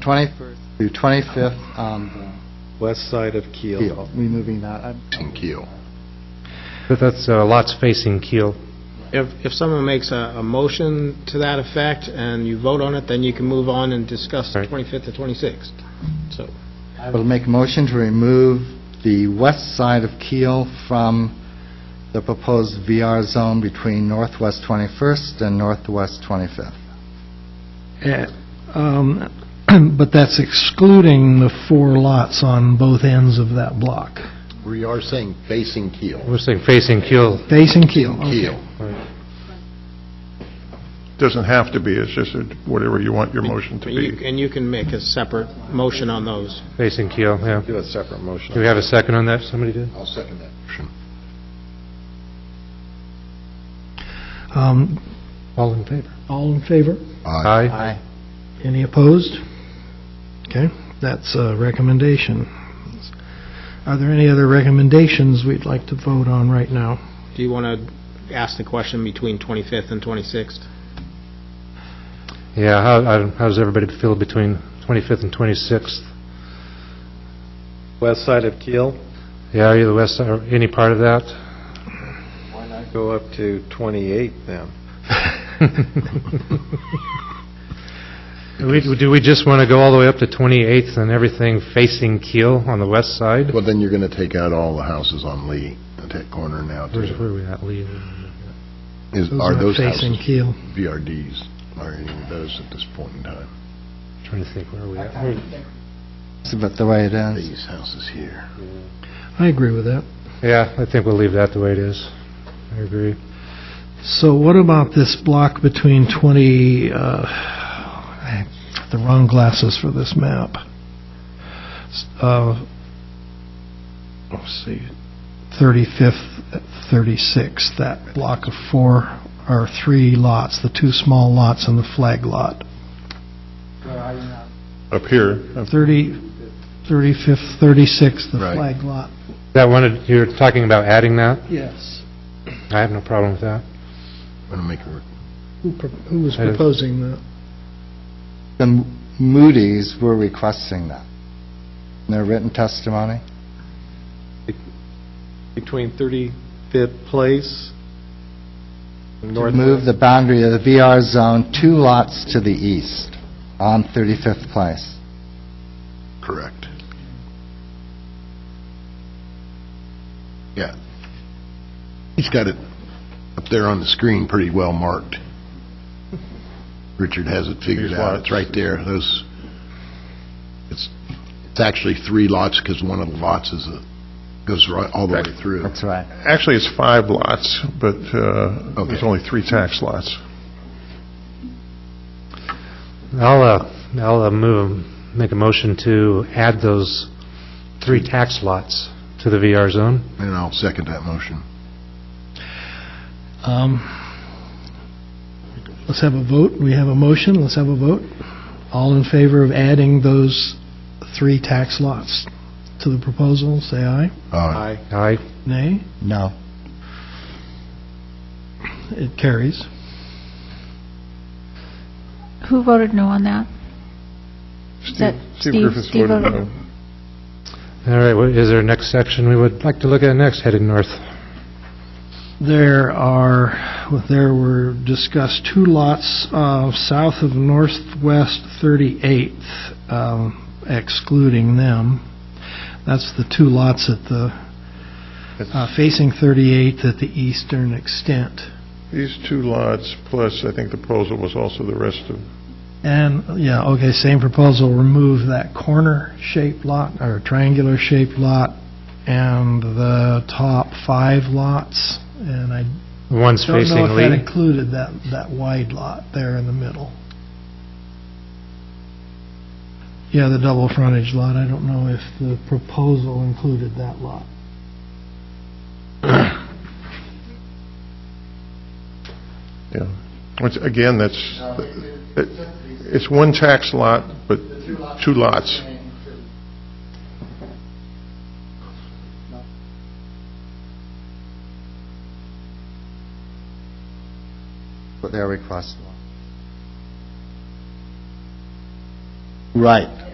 21st through 25th on west side of the Kiel. Keel, removing that. I- in Keel. But that's uh, lots facing Keel. If, if someone makes a, a motion to that effect and you vote on it, then you can move on and discuss the Right. 25th to 26th. So, I will make a motion to remove the west side of Keel from the proposed VR zone between northwest 21st and northwest 25th. Eh, um, But that's excluding the four lots on both ends of that block. We are saying facing Keel. We're saying facing Keel. Facing Keel, okay. Keel. Doesn't have to be, it's just a- whatever you want your motion to but you- be. and you can make a separate motion on those. Facing Keel, yeah. Do a separate motion. Do we have a second on that? Somebody did? I'll second that motion. Um, All in favor? All in favor? Aye. Aye. Any opposed? Okay, that's a recommendation. Are there any other recommendations we'd like to vote on right now? Do you want to ask the question between 25th and 26th? Yeah, how, I don't- how does everybody feel between 25th and 26th? West side of Kiel, Yeah, either west, or any part of that? go up to 28 then. We- Do we just want to go all the way up to 28th and everything facing Keel on the west side? Well, then you're going to take out all the houses on Lee, at that corner now, Where's, too. where are we at, Lee? Is- Are those Facing houses Keel. VRDs, are any of those at this point in time? Trying to think, where are we at? Where- It's about the way it ends. These houses here. I agree with that. Yeah, I think we'll leave that the way it is. I agree. So what about this block between 20, uh, I have the wrong glasses for this map. S- uh, Let's see, 35th, 36th, that block of four or three lots, the two small lots and the flag lot. Up here, up 30, 35th, 36th, the Right. flag lot. That one, you're talking about adding that? Yes. I have no problem with that. I'm going to make it work. Who pro- who was I don't- proposing that? The Moody's were requesting that in their written testimony. Between 35th Place and To North... move the boundary of the VR zone two lots to the east on 35th Place. Correct. Yeah. He's got it up there on the screen pretty well marked. Richard has it figured These out. lots. It's right there. Those, it's, it's actually three lots because one of the lots is, a- goes right, all the way through. That's right. Actually, it's five lots, but uh, Okay. there's only three tax lots. I'll, uh, I'll uh, move, make a motion to add those three tax lots to the VR zone. And I'll second that motion. Um, Let's have a vote. We have a motion. Let's have a vote. All in favor of adding those three tax lots to the proposal, say aye. Uh, Aye. Aye. Nay. No. It carries. Who voted no on that? Steve that Steve Steve- Griffiths Steve voted voted- no. All right, what is there a next section we would like to look at next, headed north? There are, there were discussed two lots uh, south of Northwest 38th, um, excluding them. That's the two lots at the, uh, facing 38th at the eastern extent. These two lots, plus I think the proposal was also the rest of, And, yeah, okay, same proposal, remove that corner-shaped lot, or triangular-shaped lot, and the top five lots, and I The ones don't know facing if that Lee? included that, that wide lot there in the middle. Yeah, the double frontage lot, I don't know if the proposal included that lot. yeah. Once- Again, that's, it- it's one tax lot, but two lots. What their request was. Right.